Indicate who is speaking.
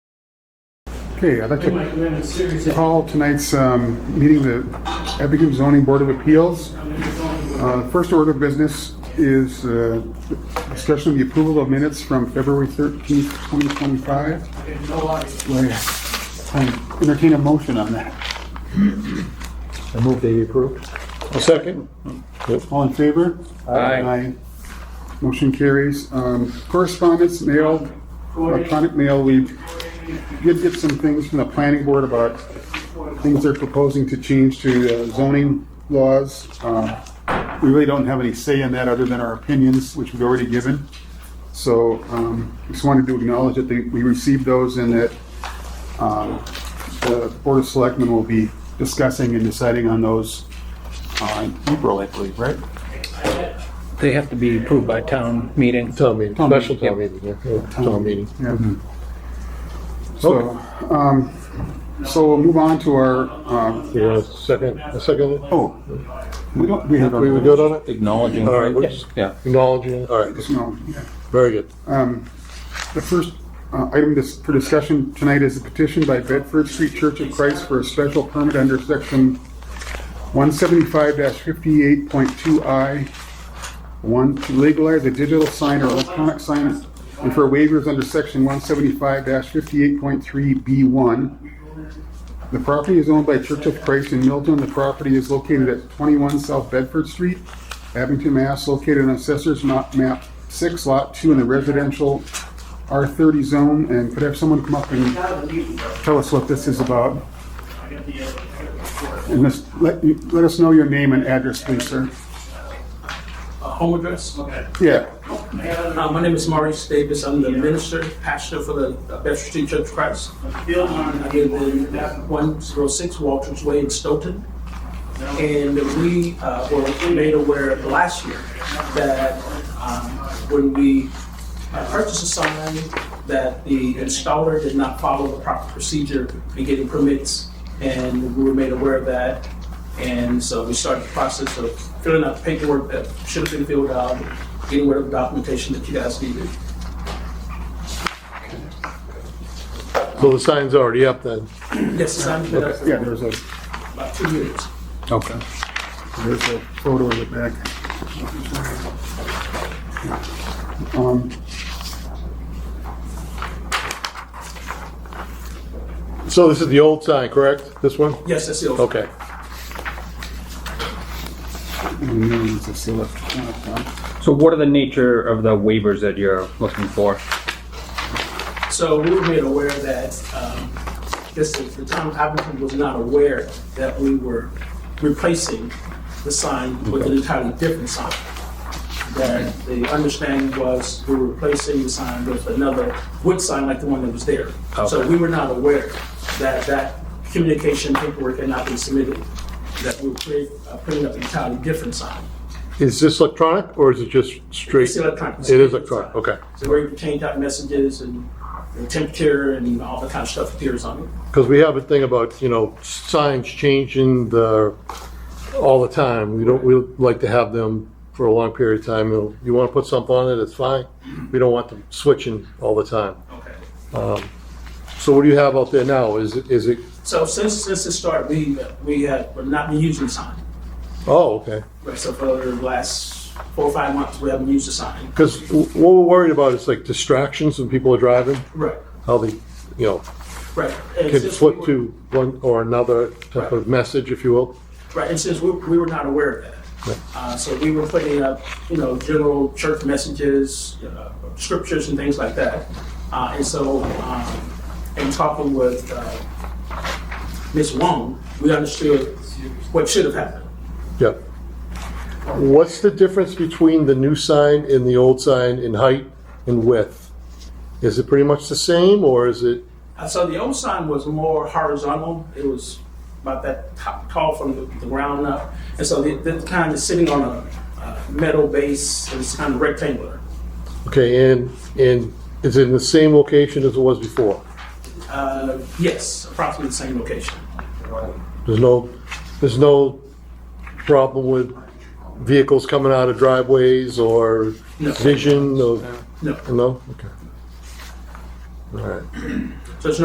Speaker 1: Okay, I'd like
Speaker 2: Bring my
Speaker 1: to
Speaker 2: commandments seriously.
Speaker 1: call tonight's um, meeting the Abington Zoning Board of Appeals.
Speaker 2: I'm in the zoning board.
Speaker 1: Uh, First order of business is uh, discussion of the approval of minutes from February 13th, 2025.
Speaker 2: Okay, no lies.
Speaker 1: Well, yeah. I Entertain a motion on that.
Speaker 3: I move they be approved.
Speaker 4: A second?
Speaker 1: All in favor? Aye. Motion carries. Um, Correspondence, mail, electronic mail, we did get some things from the planning board about things they're proposing to change to uh, zoning laws. Um, We really don't have any say in that other than our opinions, which we've already given. So um, just wanted to acknowledge that they- we received those and that um, the Board of Selectmen will be discussing and deciding on those uh, in April, I believe, right?
Speaker 5: They have to be approved by town meeting.
Speaker 4: Town meeting,
Speaker 1: Town
Speaker 4: special
Speaker 1: meeting,
Speaker 4: town meeting, yeah, yeah, town meeting.
Speaker 1: Yeah. So, um, so we'll move on to our, um,
Speaker 4: You want a second, a second?
Speaker 1: oh, we don't, we have. our-
Speaker 4: We were good on it?
Speaker 6: Acknowledging.
Speaker 4: All right, we're just
Speaker 6: Yeah.
Speaker 4: acknowledging, it. all right,
Speaker 1: No, yeah.
Speaker 4: very good.
Speaker 1: The first uh, item dis- for discussion tonight is a petition by Bedford Street Church of Christ for a special permit under section 175-58.2I, one, to legalize a digital sign or electronic sign, and for waivers under section 175-58.3B1. The property is owned by Church of Christ in Milton. The property is located at 21 South Bedford Street, Abington, Mass., located on Assessor's Ma- Map 6, Lot 2, in the residential R30 zone. And could I have someone come up and tell us what this is about? And this- let let us know your name and address, please, sir.
Speaker 2: Uh, Home address? Okay.
Speaker 1: Yeah,
Speaker 2: Uh, My name is Maurice Davis. I'm the minister, pastor for the uh, Bedford Street Church of Christ. I live in 106 Walters Way in Stoughton. And we uh, were made aware last year that um, when we uh, purchased a sign, that the installer did not follow the proper procedure in getting permits. And we were made aware of that. And so we started the process of filling out the paperwork that should have been filled out, getting rid of documentation that you guys needed.
Speaker 4: So the sign's already up then.
Speaker 2: Yes, it's on been up
Speaker 1: yeah,
Speaker 2: for
Speaker 1: there's a,
Speaker 2: about two years.
Speaker 1: okay. There's a photo in the back. Um,
Speaker 4: So this is the old sign, correct? This one?
Speaker 2: Yes, that's it.
Speaker 4: Okay.
Speaker 1: and then there's this electronic one.
Speaker 6: So what are the nature of the waivers that you're looking for?
Speaker 2: So we were made aware that, um, this is, the town of Abington was not aware that we were replacing the sign with an entirely different sign. That the understanding was we were replacing the sign with another wood sign like the one that was there. So
Speaker 6: Okay.
Speaker 2: we were not aware that that communication paperwork had not been submitted, that we were create- uh, putting up an entirely different sign.
Speaker 4: Is this electronic or is it just straight?
Speaker 2: It's electronic.
Speaker 4: It is electronic, okay.
Speaker 2: So where you can change out messages and the temperature and all that kind of stuff appears on it.
Speaker 4: Because we have a thing about, you know, signs changing the, all the time. We don't, we like to have them for a long period of time. You know, You want to put something on it, it's fine. We don't want them switching all the time.
Speaker 2: Okay.
Speaker 4: So what do you have out there now? Is it, is it,
Speaker 2: So since since it started, we we have not been using the sign.
Speaker 4: oh, okay.
Speaker 2: Right. So for the last four or five months, we haven't used the sign.
Speaker 4: Because what we're worried about is like distractions when people are driving,
Speaker 2: Right.
Speaker 4: how they, you know,
Speaker 2: Right. And
Speaker 4: can
Speaker 2: since we
Speaker 4: flip
Speaker 2: were-
Speaker 4: to one or another type of message, if you will.
Speaker 2: Right. And since we, we were not aware of that, uh, so we were putting up you know general church messages, uh, scriptures, and things like that. Uh, and so, um, in talking with uh, Ms. Wong, we understood what should have happened.
Speaker 4: Yeah. What's the difference between the new sign and the old sign in height and width? Is it pretty much the same, or is it,
Speaker 2: Uh, So the old sign was more horizontal. It was about that top, tall from the, the ground up. And so the, the kind of sitting on a uh, metal base, and it's kind of rectangular.
Speaker 4: okay, and, and is it in the same location as it was before?
Speaker 2: Uh, yes, approximately the same location.
Speaker 4: There's no, there's no problem with vehicles coming out of driveways or
Speaker 2: No.
Speaker 4: vision of,
Speaker 2: No.
Speaker 4: no? Okay. All right.